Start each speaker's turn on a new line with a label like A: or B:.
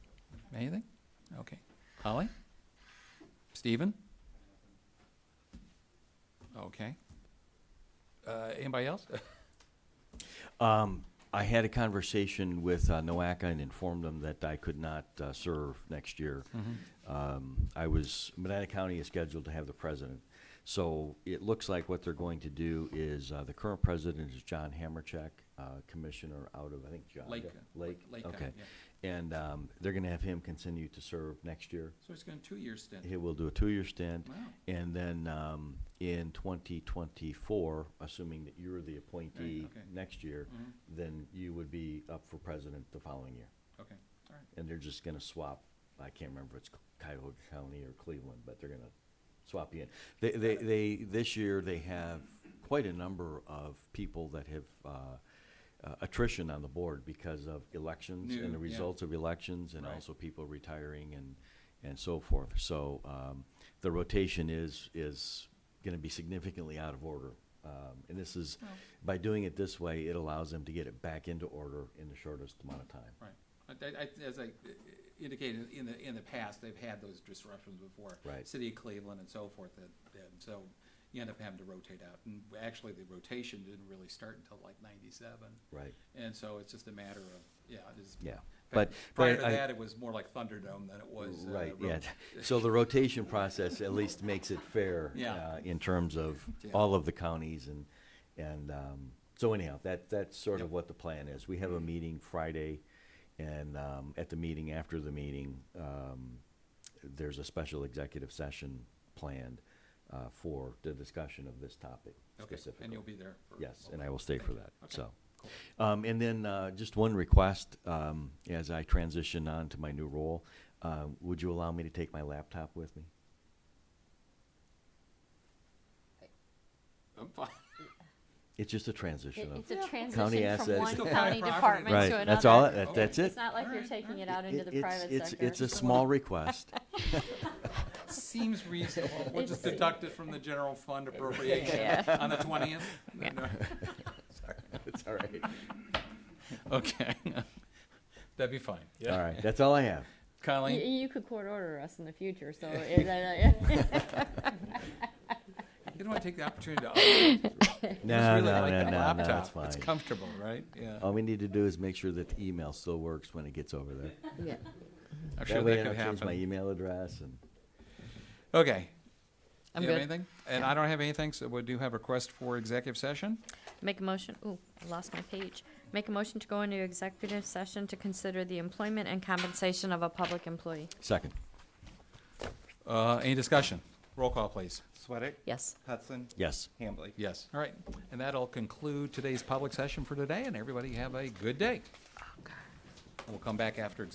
A: Anything? Okay. Holly? Stephen? Okay. Uh, anybody else?
B: Um, I had a conversation with uh, NOACA and informed them that I could not uh, serve next year. Um, I was, Medina County is scheduled to have the president. So it looks like what they're going to do is, uh, the current president is John Hammercheck, uh, commissioner out of, I think, John.
A: Lake.
B: Lake,
A: Lake County,
B: okay.
A: yeah.
B: And, um, they're gonna have him continue to serve next year.
A: So it's going to two-year stint.
B: He will do a two-year stint.
A: Wow.
B: And then um, in 2024, assuming that you're the appointee
A: okay.
B: next year,
A: Mhm.
B: then you would be up for president the following year.
A: Okay, all right.
B: And they're just going to swap, I can't remember if it's Cuyahoga County or Cleveland, but they're going to swap you in. They, they, they, this year, they have quite a number of people that have uh, uh, attrition on the board because of elections
A: New,
B: and
A: yeah.
B: the results of elections and
A: Right.
B: also people retiring and, and so forth. So um, the rotation is, is going to be significantly out of order. Um, And this is,
A: Well-
B: by doing it this way, it allows them to get it back into order in the shortest amount of time.
A: Right. I, I, as I uh, indicated, in the, in the past, they've had those disruptions before.
B: Right.
A: City of Cleveland and so forth, and, and so you end up having to rotate out. And actually, the rotation didn't really start until like ninety-seven.
B: Right.
A: And so it's just a matter of, yeah, it is.
B: Yeah.
A: in
B: But-
A: fact,
B: but
A: Prior to
B: I-
A: that, it was more like Thunderdome than it was. uh,
B: Right,
A: ro-
B: yeah. So the rotation process at least makes it fair.
A: Yeah.
B: uh, In terms of
A: Yeah.
B: all of the counties and, and, um, so anyhow, that, that's sort
A: Yep.
B: of what the plan is. We have a meeting Friday and, um, at the meeting, after the meeting, um, there's a special executive session planned, uh, for the discussion of this topic
A: Okay,
B: specifically.
A: and you'll be there. for
B: Yes,
A: all
B: and
A: that.
B: I will stay
A: Thank
B: for
A: you.
B: that,
A: Okay,
B: so.
A: cool.
B: Um, and then, uh, just one request, um, as I transition on to my new role, uh, would you allow me to take my laptop with me?
A: I'm fine.
B: It's just a
C: It-
B: transition of,
C: It's a
B: County
C: transition from
B: assets.
C: one
B: Still
C: county
A: private property.
C: department to
B: right,
C: another.
B: that's all,
A: it-
B: that- that's it.
C: It's not like you're
A: Alright,
C: taking it
A: alright.
C: out into
B: It-
C: the
B: it's-
C: private
B: it's-
C: sector.
B: It's a small request,
A: Seems reasonable. We'll just
C: It's-
A: deduct it from the general fund appropriation
C: Yeah.
A: on the twentieth.
C: Yeah.
B: it's all right,
A: Okay. That'd be fine.
B: all right, that's all I have.
C: You,
A: Colleen?
C: you could court order us in the future, so. it- uh,
A: You don't want to take the opportunity to. I
B: No,
A: really
B: no,
A: like
B: no,
A: that
B: no, no,
A: laptop.
B: it's fine. Oh,
A: It's comfortable, right? Yeah.
B: All we need to do is make sure that the email still works when it gets over there.
C: yeah.
A: I'm sure
B: That way
A: that
B: I
A: could
B: don't change my e-
A: happen.
B: email address and,
A: Okay.
D: I'm
A: Do you have
D: good.
A: anything? And I don't have anything, so we do have a request for executive session.
D: Make a motion, ooh, I lost my page. Make a motion to go into executive session to consider the employment and compensation of a public employee.
B: second,
A: Uh, any discussion? Roll call, please.
E: Sweattick?
D: Yes.
E: Hudson?
B: yes.
E: Hambley?
A: Yes. All right. And that'll conclude today's public session for today, and everybody have a good day. We'll come back after executive